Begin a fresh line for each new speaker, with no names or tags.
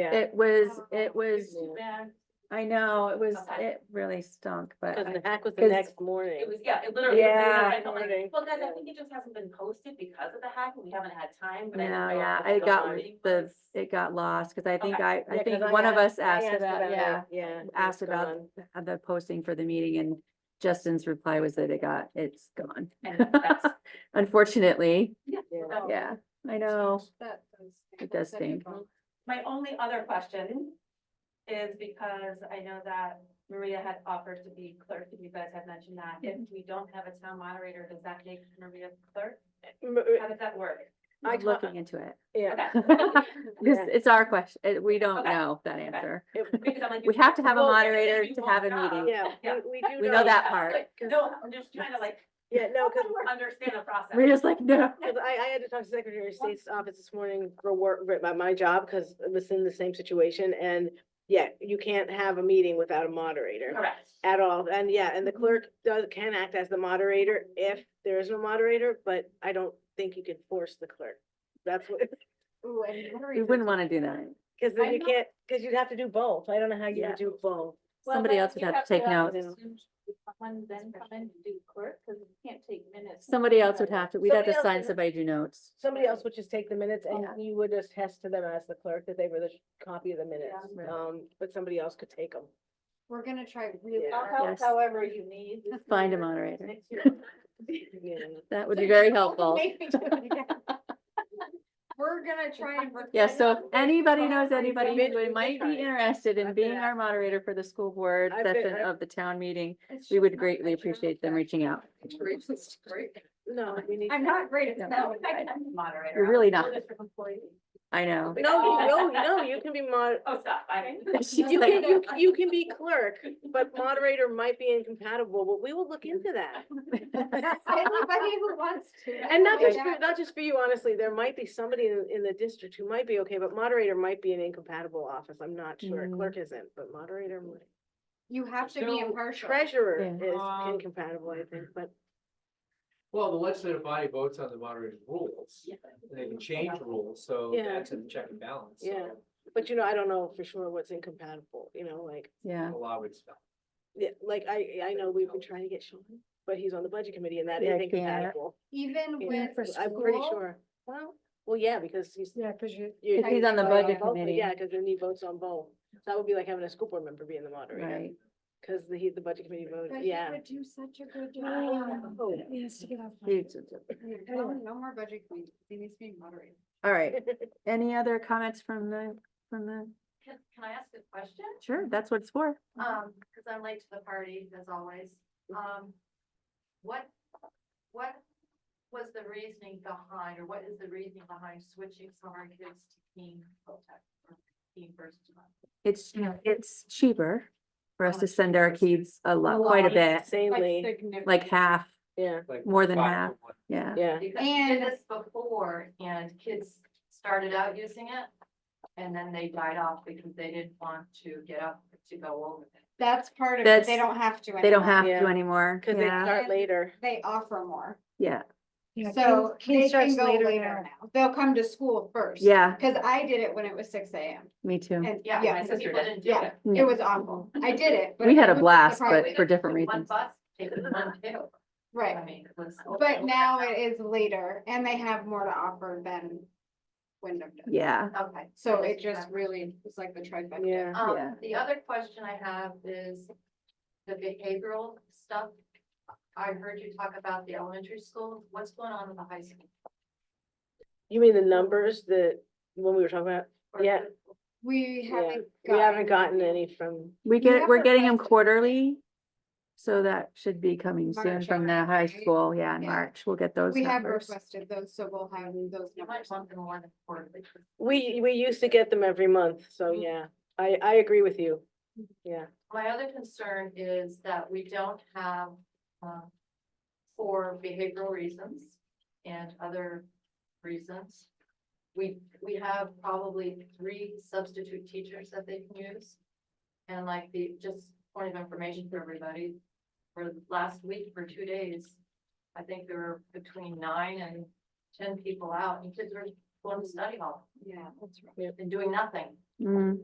Yeah.
It was,
Oh,
it was,
Too bad.
I know, it was,
Okay.
it really stunk, but
Cause the
I-
hack was the
'cause-
next morning.
It was, yeah, it literally. was the day
Yeah.
that I felt like,
Morning.
Well, guys, I think it just hasn't been posted because of the hack, and we haven't had time, but I.
no,
didn't know
yeah,
if
I
it was
got
on.
the, it got lost, cause I think
Okay.
I, I
Yeah,
think
'cause I
one of us
I
asked about,
it,
yeah.
Yeah.
asked
it's
about-
gone.
uh, The posting for the meeting and Justin's reply was that it got, it's gone.
And that's-
Unfortunately,
Yeah.
so-
yeah, I know, it does stink.
My only other question is because I know that Maria had offered to be clerk, and you guys had mentioned that. If we don't have a town moderator, does that make Maria clerk? How does that work?
I
I'm
talk-
looking into it.
Yeah.
Okay.
This,
Yeah.
it's our question, it- we don't
Okay.
know that
Okay.
answer.
It-
Because I'm like,
We have to have a
Well,
moderator
you
to
won't
have a
know.
meeting.
Yeah,
Yeah.
we- we do.
We know that part.
Like, No, I'm just trying to like,
Yeah, no, cause
understand the process.
We're just like, no.
Because I, I had to talk to Secretary of State's office this morning for work, for- about my job, because it was in the same situation, and yeah, you can't have a meeting without a moderator
Correct.
at all, and yeah, and the
Mm-hmm.
clerk does, can act as the moderator if there is no moderator, but I don't think you can force the clerk. That's what,
We wouldn't want to do that.
because then
I'm
you
not-
can't, because you'd have to do both, I don't know how you
Yeah.
would do both.
Well,
Somebody
but
else would
you
have to take
have
notes.
assume Someone then come in and do clerk, because you can't take minutes.
Somebody else would have to, we'd have
Somebody
to
else
sign
would-
somebody to notes.
Somebody else would just take the minutes and
Yeah.
you would just test to them as the clerk that they were the copy of the minutes,
Right.
um, but somebody else could take them.
We're gonna try really
Yeah.
hard,
Yes.
however you need. this
Find a
year,
moderator.
next year.
That would be very helpful.
Make me do it again. We're gonna try and.
Yeah, so if anybody knows anybody
been- we've
who
been
might
trying.
be interested in
I've been
being our moderator for the school board
I've been-
session
I've-
of the town meeting, we would greatly appreciate them reaching out.
No, we need.
I'm not great at
No.
that.
I can be moderator.
You're really
I'm a
not.
district employee.
I know.
No, you- no, no, you can be mod,
Oh, stop, I.
She's
you
like-
can, you, c- you can be clerk, but moderator might be incompatible, but we will look into that.
Anybody who wants to.
And not just
Yeah.
for, not just for you, honestly, there might be somebody in, in the district who might be okay, but moderator might be an incompatible office, I'm not sure,
Mm.
clerk isn't, but moderator might.
You have to be
So,
impartial.
Treasurer
Yeah.
is
Um,
incompatible, I think, but
Well, the legislative body votes on the moderator's rules, and they can change the rules, so
Yeah.
Oh, that's a check and balance. so
Yeah. But you know, I don't know for sure what's incompatible, you know, like,
Yeah,
The law would stop.
yeah, like I, I know we've been trying to get Sean, but he's on the budget committee and that
Yeah,
is
I can't.
incompatible.
Even
Yeah,
with.
I'm pretty
school,
sure. Well, well, yeah, because he's.
Yeah, cause you,
you-
If he's on the
you vote
budget
both,
committee.
Yeah, because then he votes on both. So That would be like having a school board member being the moderator,
right.
because the, he- the budget committee voted,
But he
yeah.
would do such a good job.
Oh,
he has to get off. my-
Huge.
No, no more budget committee, he needs to be moderated.
All right. Any other comments from the, from the,
Can can I ask a question?
sure, that's what it's for.
Um, cause I'm late to the party, as always, um, what, what was the reasoning behind, or what is the reasoning behind switching some of our kids to King Tech? or King First Month?
It's, it's cheaper for us to send our kids a lot, quite a
lot.
bit,
Insanely,
like half,
yeah,
Like
More than
five
half.
to one.
yeah.
yeah.
Because we did
And-
this before, and kids started out using it, and then they died off because they didn't want to get up to go over it.
That's part of it,
That's-
they don't have to.
They don't
anymore.
have
Yeah.
to anymore.
Because they
Yeah,
start later.
They offer more,
yeah,
Yeah,
So
King- King
they
starts
can go
later
later now, they'll come to school first.
yeah,
cause I did it when it was six AM
me too.
and
Yeah,
yeah,
my sister didn't do
yeah,
it.
Yeah.
it was awful, I did it. but
We
it
had a
was just
blast,
surprising.
but for different
One
reasons.
bus, take one two, I
Right,
mean, it was.
but now it is later and they have more to offer than Wyndham does.
Yeah,
Okay.
So it just really, it's like the trifecta.
Yeah.
Yeah.
Um, the other question I have is the behavioral stuff. I heard you talk about the elementary school. What's going on with the high school?
You mean the numbers that, when we were talking about?
Or-
Yeah.
We
Yeah.
haven't.
We haven't gotten
any.
any from,
we
We
get,
have
we're getting them
requested-
quarterly. So that should be coming soon
March,
from the high
right?
school, yeah, in
Yeah.
March, we'll get those
We have
numbers.
requested those, so we'll have those
You might
numbers.
want them more than quarterly.
we, we used to get them every month, so
Mhm.
yeah, I, I agree with you. Yeah.
My other concern is that we don't have, uh, for behavioral reasons and other reasons. We, we have probably three substitute teachers that they can use. And like the, just point of information for everybody, for last week, for two days, I think there were between nine and ten people out, and kids were going to study hall
Yeah, that's right.
and doing nothing.
Mm.